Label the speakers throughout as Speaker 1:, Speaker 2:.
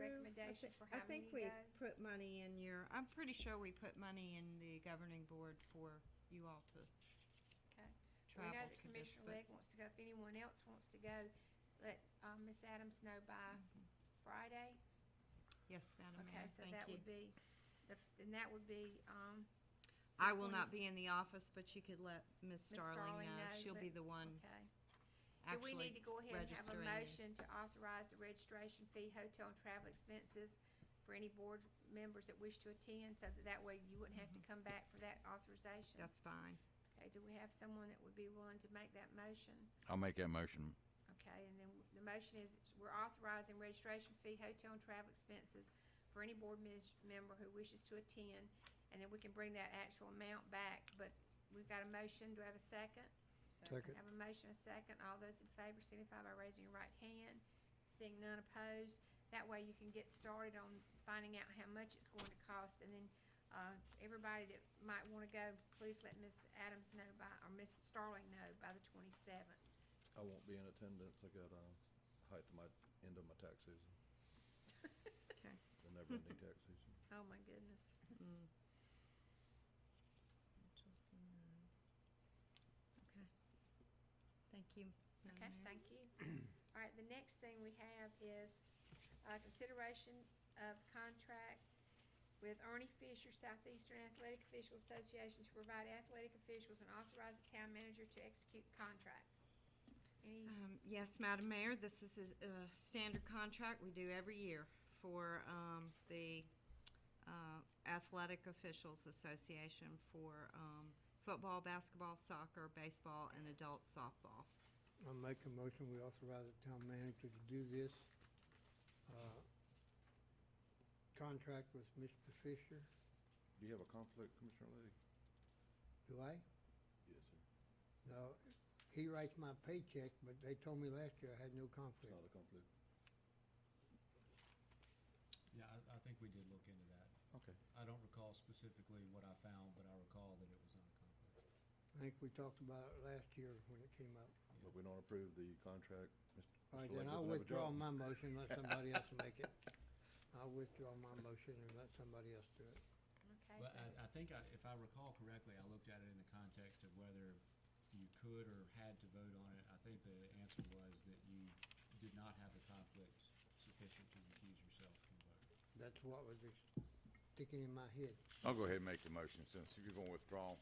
Speaker 1: allocation
Speaker 2: thi-
Speaker 1: for
Speaker 2: I
Speaker 1: how many
Speaker 2: think we
Speaker 1: go?
Speaker 2: put money in your, I'm pretty sure we put money in the governing board for you all to
Speaker 1: Okay. We know
Speaker 2: travel
Speaker 1: that
Speaker 2: to this.
Speaker 1: Commissioner
Speaker 2: but-
Speaker 1: Legg wants to go. If anyone else wants to go, let uh, Ms. Adams know by Friday.
Speaker 2: Yes, Madam Mayor,
Speaker 1: Okay, so that would
Speaker 2: Mm-hmm. thank you.
Speaker 1: be, the f- and that would be, um,
Speaker 2: I will not be
Speaker 1: 20s
Speaker 2: in the office, but you could let Ms.
Speaker 1: Ms. Starling
Speaker 2: Starling know.
Speaker 1: know,
Speaker 2: She'll
Speaker 1: but-
Speaker 2: be the one
Speaker 1: okay. Do
Speaker 2: Mm-hmm. actually
Speaker 1: we need to go ahead and have a
Speaker 2: registering you.
Speaker 1: motion to authorize the registration fee, hotel and travel expenses for any board members that wish to attend, so that that way you wouldn't have to come
Speaker 2: Mm-hmm.
Speaker 1: back for that authorization?
Speaker 2: That's fine.
Speaker 1: Okay, do we have someone that would be willing to make that motion?
Speaker 3: I'll make that motion.
Speaker 1: Okay, and then the motion is, we're authorizing registration fee, hotel and travel expenses for any board mis- member who wishes to attend, and then we can bring that actual amount back, but we've got a motion, do I have a second?
Speaker 4: Second.
Speaker 1: Have a motion, a second, all those in favor signify by raising your right hand, seeing none opposed. That way you can get started on finding out how much it's going to cost, and then, uh, everybody that might wanna go, please let Ms. Adams know by, or Ms. Starling know by the twenty-seventh.
Speaker 5: I won't be in attendance. I got, um, height of my, end of my tax season,
Speaker 1: Okay.
Speaker 5: the never-ending tax season.
Speaker 1: Oh, my goodness.
Speaker 2: Mm. Mitchell's and, uh, Okay. Thank you. Madam
Speaker 1: Okay,
Speaker 2: Mayor.
Speaker 1: thank you. All right, the next thing we have is uh, consideration of contract with Ernie Fisher, Southeastern Athletic Officials Association, to provide athletic officials and authorize the town manager to execute contract. Any,
Speaker 2: Um, Yes, Madam Mayor, this is a a standard contract we do every year for um, the uh, Athletic Officials Association for um, football, basketball, soccer, baseball, and adult softball.
Speaker 4: I'll make a motion, we authorize the town manager to do this. uh, Contract with Mr. Fisher,
Speaker 5: Do you have a conflict, Commissioner Lee?
Speaker 4: do I?
Speaker 5: Yes, sir.
Speaker 4: No, he writes my paycheck, but they told me last year I had no
Speaker 5: It's
Speaker 4: conflict.
Speaker 5: not a conflict.
Speaker 6: Yeah, I, I think we did look into that.
Speaker 5: Okay.
Speaker 6: I don't recall specifically what I found, but I recall that it was not a conflict.
Speaker 4: I think we talked about it last year when it came up.
Speaker 5: But we don't approve the contract. Mr.
Speaker 4: All right,
Speaker 5: Mr. Lake
Speaker 4: then I'll
Speaker 5: doesn't have a
Speaker 4: withdraw
Speaker 5: job.
Speaker 4: my motion, let somebody else make it. I'll withdraw my motion and let somebody else do it.
Speaker 1: okay,
Speaker 6: But
Speaker 1: so,
Speaker 6: I, I think I, if I recall correctly, I looked at it in the context of whether you could or had to vote on it. I think the answer was that you did not have a conflict sufficient to recuse yourself from voting.
Speaker 4: That's what was sticking in my head.
Speaker 3: I'll go ahead and make the motion since you're going to withdraw.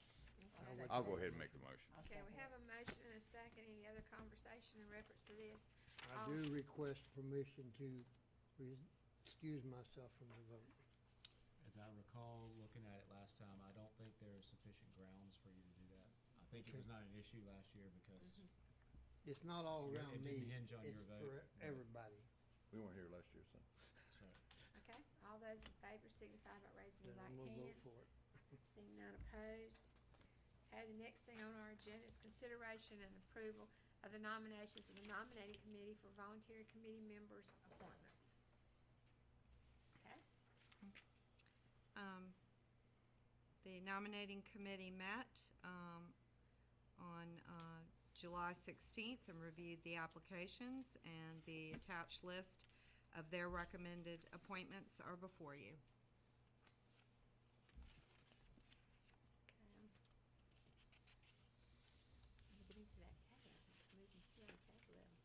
Speaker 4: I'll
Speaker 3: I'll go ahead and make the motion.
Speaker 1: okay, we have a motion and a second. Any other conversation in reference to this?
Speaker 4: I do request permission to re- excuse myself from the vote.
Speaker 6: As I recall looking at it last time, I don't think there are sufficient grounds for you to do that. I think it was not an issue last year because
Speaker 4: It's not all
Speaker 6: It
Speaker 4: around me.
Speaker 6: didn't hinge on your
Speaker 4: It's
Speaker 6: vote,
Speaker 4: for
Speaker 6: but-
Speaker 4: everybody.
Speaker 5: We weren't here last year, so.
Speaker 6: so-
Speaker 1: Okay, all those in favor signify by raising your right
Speaker 4: Then I'm
Speaker 1: hand.
Speaker 4: gonna vote for it.
Speaker 1: Seeing none opposed. Okay, the next thing on our agenda is consideration and approval of the nominations of the nominating committee for voluntary committee members' appointments. Okay,
Speaker 2: Um, The nominating committee met um, on uh, July 16th and reviewed the applications, and the attached list of their recommended appointments are before you.
Speaker 1: okay. um, Let me get into that tab, it's moving slow, tab level.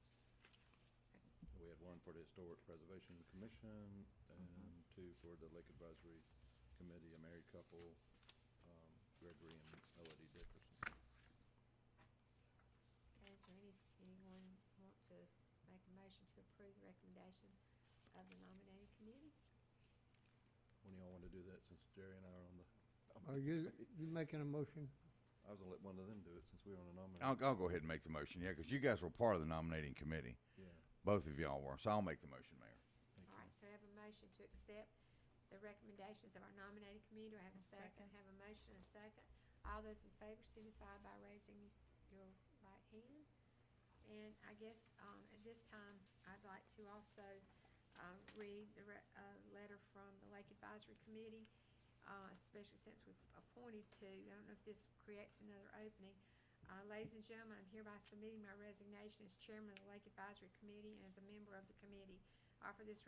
Speaker 5: We had one for the Historic Preservation Commission
Speaker 4: Uh-huh.
Speaker 5: and two for the Lake Advisory Committee, a married couple, um, Gregory and Elodie Dickerson.
Speaker 1: Okay, is there any, anyone want to make a motion to approve the recommendation of the nominating committee?
Speaker 5: When y'all want to do that, since Jerry and I are on the.
Speaker 4: Are you, you making a motion?
Speaker 5: I was gonna let one of them do it since we were on a nominee.
Speaker 3: I'll, I'll go ahead and make the motion, yeah, because you guys were part of the nominating committee.
Speaker 5: Yeah,
Speaker 3: Both of y'all were, so I'll make the motion, Mayor.
Speaker 5: thank
Speaker 1: All
Speaker 5: you.
Speaker 1: right, so I have a motion to accept the recommendations of our nominating committee. Do I have a second? Have a motion and a second. All those in favor signify by raising your right hand. And I guess, um, at this time, I'd like to also, um, read the re- uh, letter from the Lake Advisory Committee, uh, especially since we've appointed two. I don't know if this creates another opening. Uh, ladies and gentlemen, I'm hereby submitting my resignation as chairman of the Lake Advisory Committee and as a member of the committee. I Offer this